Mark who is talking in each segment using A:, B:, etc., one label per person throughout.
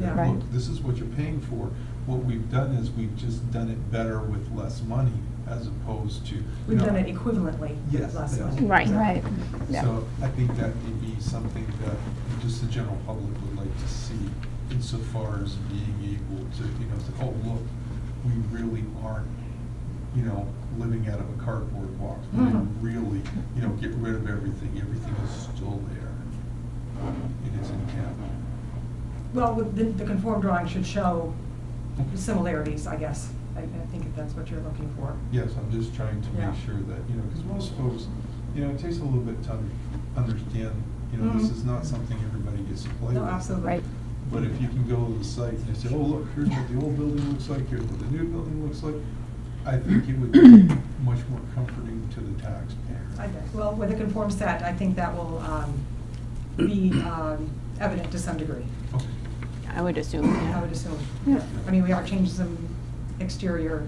A: that,
B: Yeah.
A: look, this is what you're paying for. What we've done is we've just done it better with less money as opposed to.
B: We've
A: No.
B: done it equivalently
A: Yes,
B: last
A: yes.
B: month.
C: Right.
D: Right, yeah.
A: So I think that may be something that just the general public would like to see insofar as being able to, you know, say, oh, look, we really aren't, you know, living out of a cardboard box. We
B: Mhm.
A: really, you know, get rid of everything. Everything is still there. It is in cap.
B: Well, with the, the conform drawing should show similarities, I guess. I, I think if that's what you're looking for.
A: Yes, I'm just trying to
B: Yeah.
A: make sure that, you know, because most folks, you know, it takes a little bit to un- understand, you know, this
B: Mhm.
A: is not something everybody gets to play with.
B: No, absolutely.
D: Right.
A: But if you can go to the site and say, oh, look, here's what the old building looks like, here's what the new building looks like, I think it would be much more comforting to the
B: I-
A: taxpayer.
B: Well, with a conform set, I think that will um, be um, evident to some degree,
A: Okay.
C: I would assume,
B: I
C: yeah.
B: would assume.
D: Yeah.
B: I mean, we have changed some exterior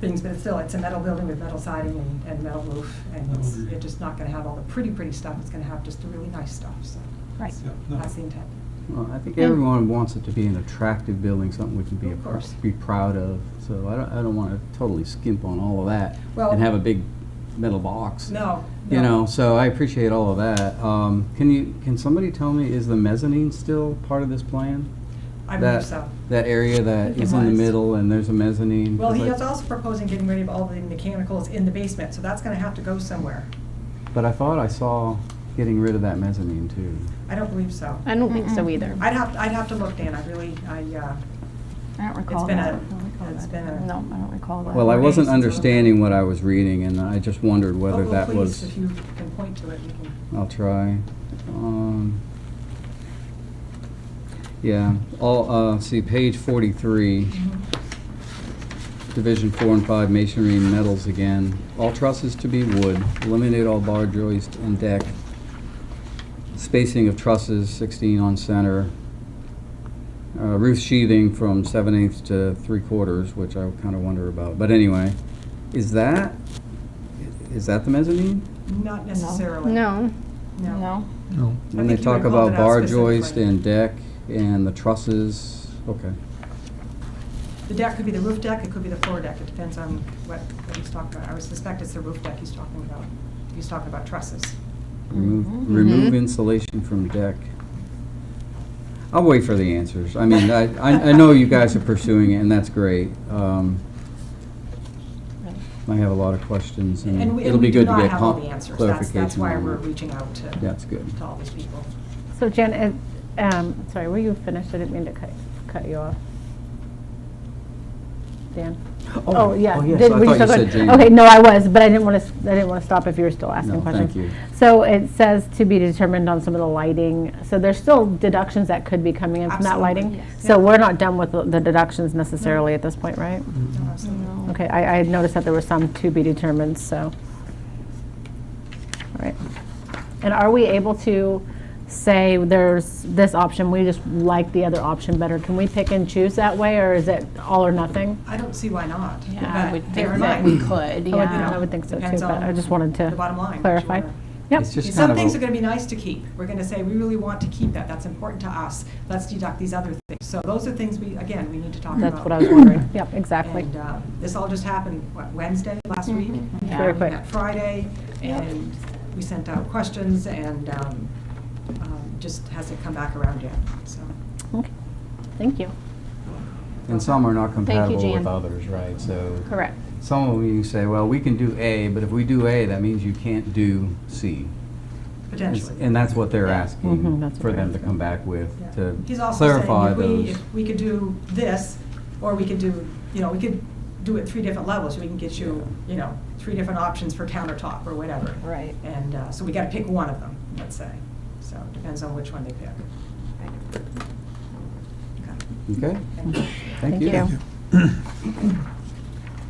B: things, but it's still, it's a metal building with metal siding and, and metal roof. And it's,
A: Agreed.
B: it's just not gonna have all the pretty, pretty stuff, it's gonna have just the really nice stuff, so
D: Right.
A: Yeah, no.
B: that's the intent.
E: Well, I think
D: And-
E: everyone wants it to be an attractive building, something we can be,
B: Of
E: a pr-
B: course.
E: be proud of. So I don't, I don't want to totally skimp on all of that
B: Well-
E: and have a big metal box.
B: No, no.
E: You know, so I appreciate all of that. Um, can you, can somebody tell me, is the mezzanine still part of this plan?
B: I
E: That-
B: believe so.
E: That area that is in the
D: was.
E: middle and there's a mezzanine?
B: Well, he
E: Because
B: is
E: I-
B: also proposing getting rid of all the mechanicals in the basement, so that's gonna have to go somewhere.
E: But I thought I saw getting rid of that mezzanine too.
B: I don't believe so.
C: I don't think so
D: Mm-mm.
C: either.
B: I'd have, I'd have to look, Dan, I really, I, uh,
D: I don't recall
B: been
D: that.
B: a-
D: I don't recall
B: it's
D: that.
B: been a-
D: No, I don't recall that.
E: Well, I
B: Or
E: wasn't
B: days until-
E: understanding what I was reading and I just wondered whether
B: oh,
E: that
B: please,
E: was.
B: If you can point to it, you can.
E: I'll try. Um, yeah, all, uh, see, page forty-three, Mm-hmm. division four and five, masonry and metals again. All trusses to be wood, eliminate all bar joist and deck. Spacing of trusses, sixteen on center. Uh, roof sheathing from seven eighths to three quarters, which I kinda wonder about, but anyway, is that, is that the mezzanine?
B: Not necessarily.
C: No,
B: No.
D: No.
E: No. When
B: think you
E: they
B: had
E: talk
B: called it
E: about
B: out
E: bar
B: specifically.
E: joist and deck and the trusses, okay.
B: The deck could be the roof deck, it could be the floor deck, it depends on what, what he's talking about. I would suspect it's the roof deck he's talking about. He's talking about trusses.
E: Remove,
B: Mm-hmm.
D: Mhm.
E: remove
C: Mhm.
E: insulation from deck. I'll wait for the answers. I mean, I, I, I know you guys are pursuing it and that's great. Um,
C: Right.
E: I have a lot of questions
B: And
E: and
B: we,
E: it'll
B: and
E: be
B: we do
E: good to
B: not
E: get
B: have all
E: com-
B: the
E: clarification.
B: answers. That's, that's why
E: on
B: we're
E: that.
B: reaching out to.
E: That's good.
B: To all these people.
F: So Jen, and, um, sorry, were you finished? I didn't mean to cut, cut you off. Dan? Oh, yeah.
E: yes,
F: Did-
E: I
F: were
E: thought you
F: still
E: said
F: going-
E: Jamie.
F: Okay, no, I was, but I didn't want to, I didn't want to stop if you were still
E: No,
F: asking
E: thank
F: questions.
E: you.
F: So it says to be determined on some of the lighting, so there's still deductions that could be coming in from that
B: Absolutely,
F: lighting?
C: yes.
F: So we're not done with the- the deductions necessarily at this point, right?
E: Mm-hmm.
B: No, absolutely.
C: No.
F: Okay, I, I had noticed that there were some to be determined, so. All right. And are we able to say there's this option, we just like the other option better? Can we pick and choose that way, or is it all or nothing?
B: I don't see why not.
C: Yeah, I
B: but
C: would think
B: bear in
C: that
B: mind-
C: we could,
F: I would-
C: yeah.
F: I would think so too,
B: Depends
F: but I
B: on
F: just wanted to
B: the bottom line, what you
F: clarify.
B: wanna-
F: Yep,
E: It's just kind
B: Some
E: of a-
B: things are gonna be nice to keep. We're gonna say, we really want to keep that, that's important to us. Let's deduct these other things. So those are things we, again, we need to talk about.
F: that's what I was wondering. Yep, exactly. Mm-hmm.
B: And uh, this all just happened, what, Wednesday last week?
C: Yeah.
F: Very
B: We
F: quick.
B: met Friday,
C: Yeah.
B: and we sent out questions, and um, um, just hasn't come back around yet, so.
F: Okay. Thank you.
E: And some are not
C: you,
E: compatible
C: Jan.
E: with others, right? So.
C: correct.
E: Some of you say, well, we can do A, but if we do A, that means you can't do C.
B: Potentially.
E: And that's what they're
F: Mhm,
E: asking
F: that's what
E: for
F: they're
E: them to
F: asking.
E: come back with,
B: Mm-hmm, Yeah.
E: to
B: He's also saying,
E: clarify
B: if we,
E: those.
B: if we could do this, or we could do, you know, we could do it three different levels, we can get you, you know, three different options for countertop or whatever.
C: Right.
B: And uh, so we gotta pick one of them, let's say, so it depends on which one they pick. Okay.
E: Okay,
B: Thank you.
E: thank
F: Thank
E: you.
F: you.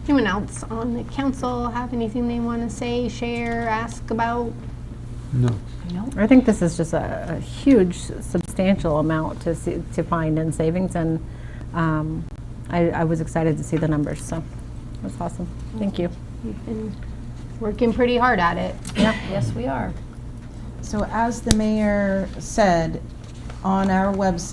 C: Anyone else on the council have anything they want to say, share, ask about?
A: No.
C: No.
F: I think this is just a, a huge substantial amount to see, to find in savings and um, I, I was excited to see the numbers, so that's awesome. Thank you.
C: We've been working pretty hard at it.
F: Yeah.
C: Yes, we are.
G: So as the mayor said, on our website,